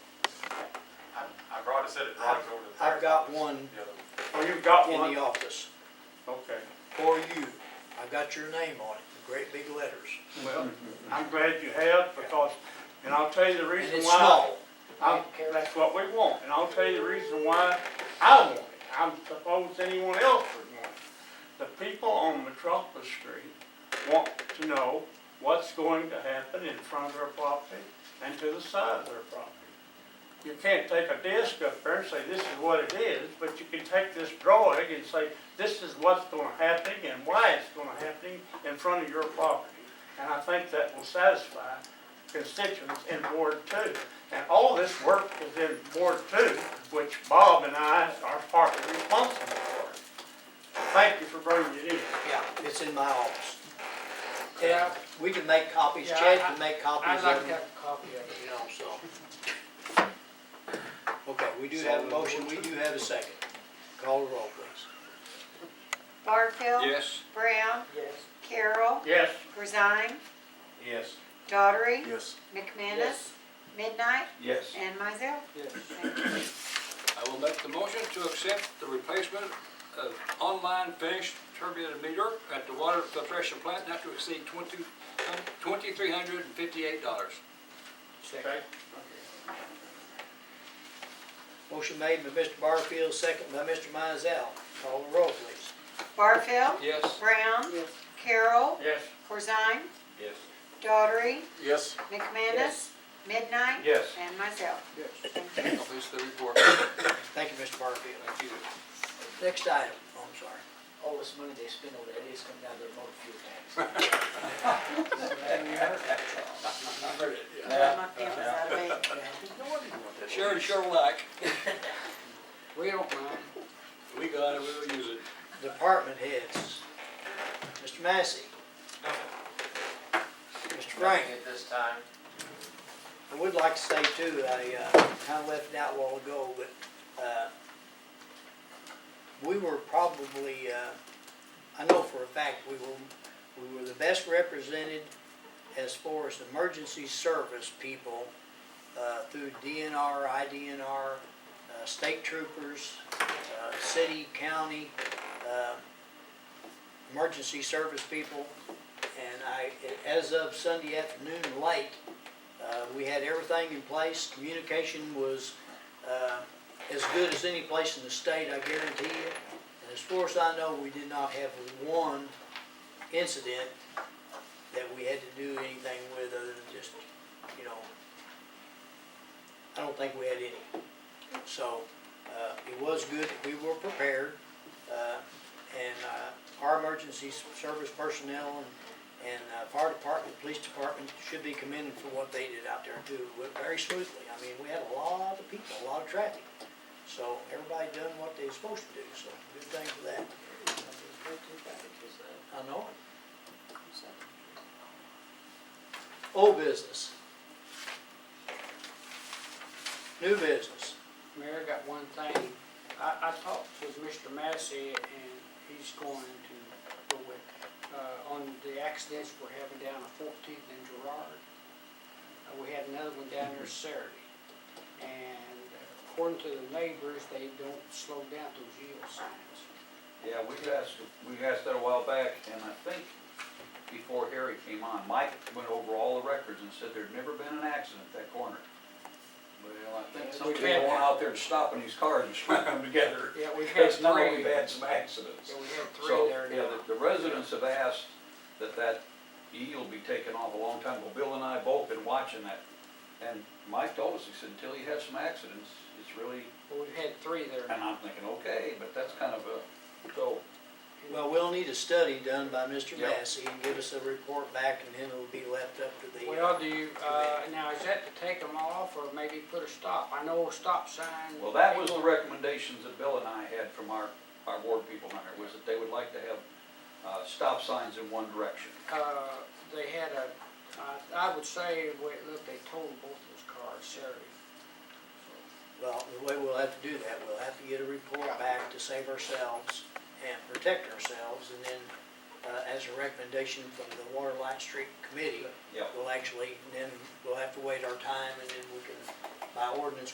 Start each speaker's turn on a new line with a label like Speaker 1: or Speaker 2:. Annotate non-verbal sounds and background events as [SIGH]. Speaker 1: said it drives over the.
Speaker 2: I've got one
Speaker 1: The other one.
Speaker 3: Oh, you've got
Speaker 2: in
Speaker 3: one?
Speaker 2: the office
Speaker 3: Okay.
Speaker 2: for you. I've got your name on it, in great big letters.
Speaker 3: Well, I'm glad you have because, and I'll tell you the
Speaker 2: Mm-hmm. And
Speaker 3: reason
Speaker 2: it's
Speaker 3: why.
Speaker 2: small.
Speaker 3: I'm- That's what we want, and I'll tell you the reason why I want it. I suppose anyone else would want it. The people on Metropolis Street want to know what's going to happen in front of their property and to the side of their property. You can't take a disc up there and say, this is what it is, but you can take this drawing and say, this is what's gonna happen and why it's gonna happen in front of your property. And I think that will satisfy constituents in Ward Two. And all this work is in Ward Two, which Bob and I are partly responsible for. Thank you for bringing it in.
Speaker 2: Yeah, it's in my office.
Speaker 4: Yeah.
Speaker 2: We can make copies,
Speaker 4: Yeah,
Speaker 2: Chad
Speaker 4: I-
Speaker 2: can make copies
Speaker 4: I'd like
Speaker 2: of
Speaker 4: to have
Speaker 2: them,
Speaker 4: a copy of it.
Speaker 2: you know, so. Okay, we do have a motion, we do have a second. Call the roll, please.
Speaker 5: Barfield.
Speaker 6: Yes.
Speaker 5: Brown.
Speaker 4: Yes.
Speaker 5: Carroll.
Speaker 3: Yes?
Speaker 5: Corzine.
Speaker 6: Yes.
Speaker 5: Daughtry.
Speaker 6: Yes.
Speaker 5: McManus. Midnight.
Speaker 6: Yes.
Speaker 5: And myself.
Speaker 4: Yes.
Speaker 6: I will make the motion to accept the replacement of online finished turbinated meter at the water filtration plant not to exceed twenty, twenty-three hundred and fifty-eight dollars.
Speaker 3: Okay.
Speaker 2: Motion made by Mr. Barfield, second by Mr. Mizell. Call the roll, please.
Speaker 5: Barfield.
Speaker 6: Yes.
Speaker 5: Brown.
Speaker 4: Yes.
Speaker 5: Carroll.
Speaker 3: Yes?
Speaker 5: Corzine.
Speaker 6: Yes.
Speaker 5: Daughtry.
Speaker 6: Yes.
Speaker 5: McManus. Midnight.
Speaker 3: Yes.
Speaker 5: And myself.
Speaker 4: Yes.
Speaker 6: Completes the report. Thank
Speaker 2: Thank you, Mr. Barfield.
Speaker 6: you.
Speaker 2: Next item, oh, I'm sorry.
Speaker 4: All this money they spend over there, it's coming down their motor fuel tax.
Speaker 6: I heard it.
Speaker 5: My pen was out of ink.
Speaker 6: [LAUGHS] Sharon sure like.
Speaker 4: We don't mind.
Speaker 6: We got it, we will use it.
Speaker 2: Department heads. Mr. Massey. Mr. Frank.
Speaker 7: At this time,
Speaker 2: I would like to say too, I uh, kind of left it out a while ago, but uh, we were probably, uh, I know for a fact, we were, we were the best represented as far as emergency service people uh, through DNR, IDNR, uh, state troopers, uh, city, county, uh, emergency service people. And I, as of Sunday afternoon late, uh, we had everything in place, communication was, uh, as good as any place in the state, I guarantee you. And as far as I know, we did not have one incident that we had to do anything with other than just, you know, I don't think we had any. So, uh, it was good that we were prepared, uh, and, uh, our emergency s- service personnel and and uh, fire department, police department should be commended for what they did out there too, It went very smoothly. I mean, we had a lot of people, a lot of traffic. So everybody done what they was supposed to do, so good thing for that. I know it. Old business. New business.
Speaker 4: Mayor, I got one thing. I, I talked with Mr. Massey and he's going to go with, uh, on the accidents we're having down on Fourteenth and Gerard. Uh, we had another one down there Saturday. And according to the neighbors, they don't slow down those yield signs.
Speaker 8: Yeah, we asked, we asked that a while back, and I think before Harry came on, Mike went over all the records and said there'd never been an accident at that corner. Well, I think somebody's going out there and stopping these cars and [LAUGHS] slamming them together.
Speaker 4: Yeah, we've had
Speaker 8: Because now
Speaker 4: three.
Speaker 8: we've had some accidents.
Speaker 4: Yeah, we had three
Speaker 8: So,
Speaker 4: there now.
Speaker 8: yeah, the, the residents have asked that that yield be taken off a long time ago. Bill and I both been watching that. And Mike told us, he said, until you have some accidents, it's really,
Speaker 4: Well, We've had three there
Speaker 8: and
Speaker 4: now.
Speaker 8: I'm thinking, okay, but that's kind of a, so.
Speaker 2: Well, we'll need a study done by Mr.
Speaker 8: Yep.
Speaker 2: Massey and give us a report back and then it'll be left up to the. uh,
Speaker 4: Well, do you, uh, now is that to take them off or maybe put a stop? I know a stop sign.
Speaker 8: Well, that was the recommendations that Bill and I had from our, our board people on there, was that they would like to have, uh, stop signs in one direction.
Speaker 4: Uh, they had a, I- I would say, wait, look, they totaled both those cars Saturday.
Speaker 2: Well, the way we'll have to do that, we'll have to get a report back to save ourselves and protect ourselves, and then, uh, as a recommendation from the Water Light Street Committee,
Speaker 8: Yep.
Speaker 2: we'll actually, then we'll have to wait our time, and then we can, by ordinance,